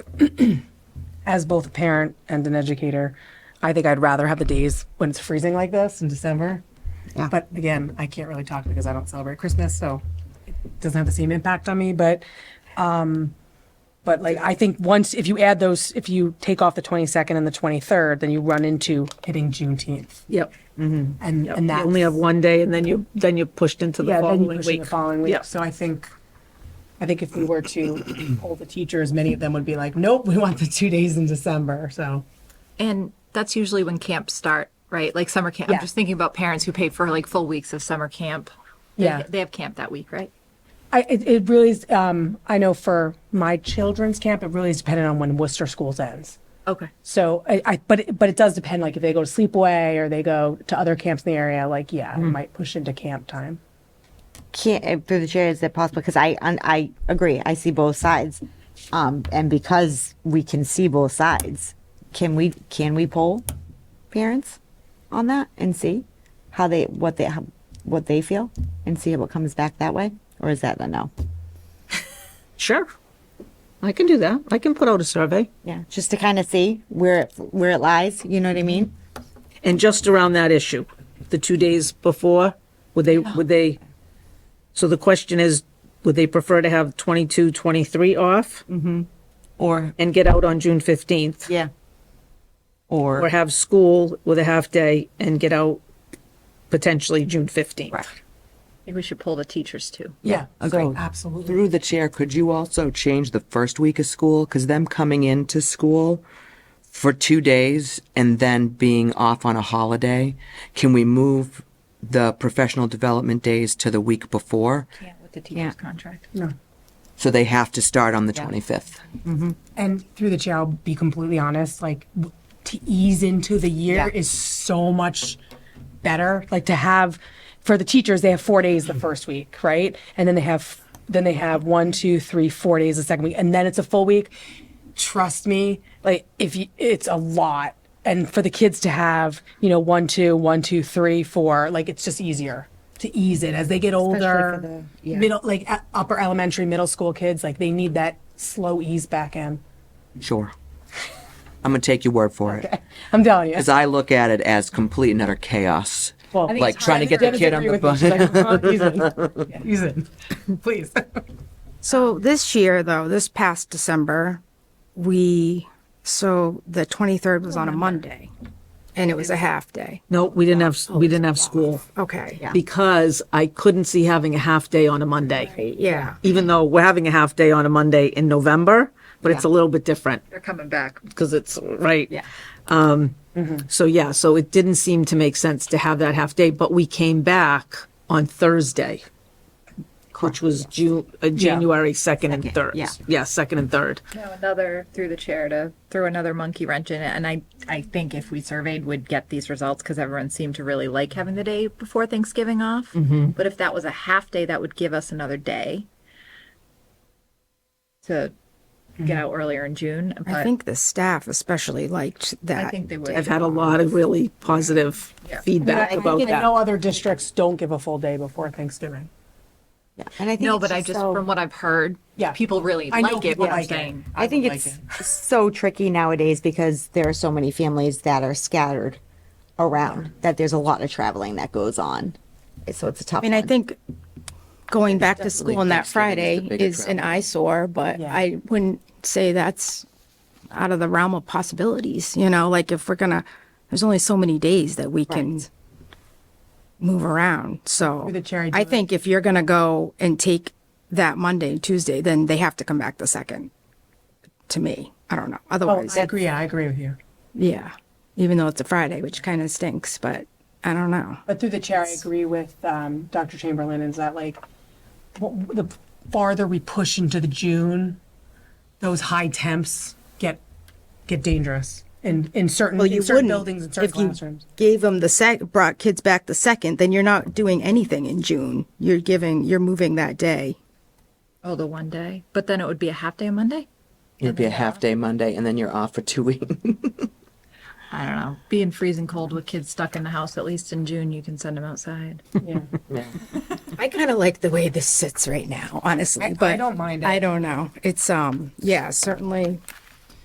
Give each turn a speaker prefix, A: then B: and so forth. A: as both a parent and an educator, I think I'd rather have the days when it's freezing like this in December.
B: Yeah.
A: But again, I can't really talk because I don't celebrate Christmas, so it doesn't have the same impact on me. But, um, but like I think once if you add those, if you take off the 22nd and the 23rd, then you run into hitting Juneteenth,
C: Yep.
A: and
C: yep.
A: and
C: You
A: that
C: only have one day and then you, then you're pushed into the
A: yeah, then you
C: following
A: push in
C: week.
A: the following week.
C: Yeah.
A: So I think, I think if we were to poll the teachers, many of them would be like, nope, we want the two days in December. So
D: And that's usually when camps start, right? Like summer camp.
A: Yeah.
D: I'm just thinking about parents who pay for like full weeks of summer camp. They-
A: Yeah.
D: They have camp that week, right?
A: I, it, it really is, um, I know for my children's camp, it really is dependent on when Worcester schools ends.
D: Okay.
A: So I, I but it, but it does depend, like if they go to sleepaway or they go to other camps in the area, like, yeah, it might push into camp time.
B: Can't, uh, through the chair, is it possible? Because I, un- I agree. I see both sides. Um, and because we can see both sides, can we, can we poll parents on that and see how they, what they, how, what they feel and see what comes back that way? Or is that a no?
C: Sure. I can do that. I can put out a survey.
B: Yeah, just to kind of see where, it where it lies, you know what I mean?
C: And just around that issue, the two days before, would they, would they, so the question is, would they prefer to have 22, 23 off?
A: Mm-hmm.
E: Or,
C: and get out on June 15th?
B: Yeah.
C: Or
E: or,
C: have school with a half day and get out potentially June 15th?
E: Right.
D: Maybe we should pull the teachers too.
A: Yeah.
E: so
A: absolutely.
E: through the chair, could you also change the first week of school? Because them coming into school for two days and then being off on a holiday, can we move the professional development days to the week before?
D: Yeah, with the teacher's contract.
E: So they have to start on the 25th?
A: And through the chair, I'll be completely honest, like w- to ease into the year is so much better. Like to have for the teachers, they have four days the first week, right? And then they have then they have one, two, three, four days the second week, and then it's a full week. Trust me, like if you, it's a lot. And for the kids to have, you know, one, two, one, two, three, four, like it's just easier to ease it as they get older. Middle, like uh, upper elementary, middle school kids, like they need that slow ease back in.
E: Sure. I'm going to take your word for it.
A: I'm telling you.
E: Because I look at it as complete and utter chaos.
A: Well,
D: think
E: like
D: it's
E: trying to get
D: hard
E: the kid on the bus.
A: Use it, please.
F: So this year, though, this past December, we, so the 23rd was on a Monday and it was a half day.
C: No, we didn't have, we didn't have school
F: Okay. Yeah.
C: because I couldn't see having a half day on a Monday.
F: Yeah.
C: Even though we're having a half day on a Monday in November, but it's a little bit different
D: They're coming back.
C: because it's, right? Yeah. Um, so yeah, so it didn't seem to make sense to have that half day, but we came back on Thursday, which was Ju, uh, January 2nd and 3rd.
B: yeah.
C: Yeah, 2nd and 3rd.
D: Now another through the chair to throw another monkey wrench in it. And I, I think if we surveyed, we'd get these results because everyone seemed to really like having the day before Thanksgiving off. But if that was a half day, that would give us another day to get out earlier in June. But
F: I think the staff especially liked that.
D: I think they would.
C: I've had a lot of really positive feedback about that.
A: No other districts don't give a full day before Thanksgiving.
B: And I think
D: No,
B: it's
D: but I just
B: so-
D: from what I've heard,
A: Yeah.
D: people really
A: I know
D: like it.
A: people
D: What I'm
A: like it.
D: saying.
B: I think
A: would
B: it's so tricky nowadays because there are so many families that are scattered around that there's a lot of traveling that goes on. So it's a tough
F: I mean, I
B: one.
F: think going back to school on that
E: Thanksgiving
F: Friday
E: is the bigger
F: is an
E: travel.
F: eyesore, but
A: Yeah.
F: I wouldn't say that's out of the realm of possibilities, you know, like if we're gonna, there's only so many days that we can move around, so.
A: Through the chair, I do
F: I
A: it.
F: think if you're gonna go and take that Monday, and Tuesday, then they have to come back the second, to me. I don't know,
A: Oh,
F: otherwise,
A: I agree, I agree with you.
F: yeah, even though it's a Friday, which kind of stinks, but I don't know.
A: But through the chair, I agree with um, Dr. Chamberlain, is that like, w- w- the farther we push into the June, those high temps get, get dangerous in, in certain,
F: Well, Oh, you
A: in certain
F: wouldn't
A: buildings, and certain
F: if you
A: classrooms.
F: gave them the sec, brought kids back the second, then you're not doing anything in June. You're giving, you're moving that day.
D: Oh, the one day, but then it would be a half day on Monday.
E: It'd be a half day Monday and then you're off for two weeks.
D: I don't know. Being freezing cold with kids stuck in the house, at least in June, you can send them outside.
F: I kind of like the way this sits right now, honestly,
A: I
F: but
A: don't mind it.
F: I don't know. It's, um, yeah, certainly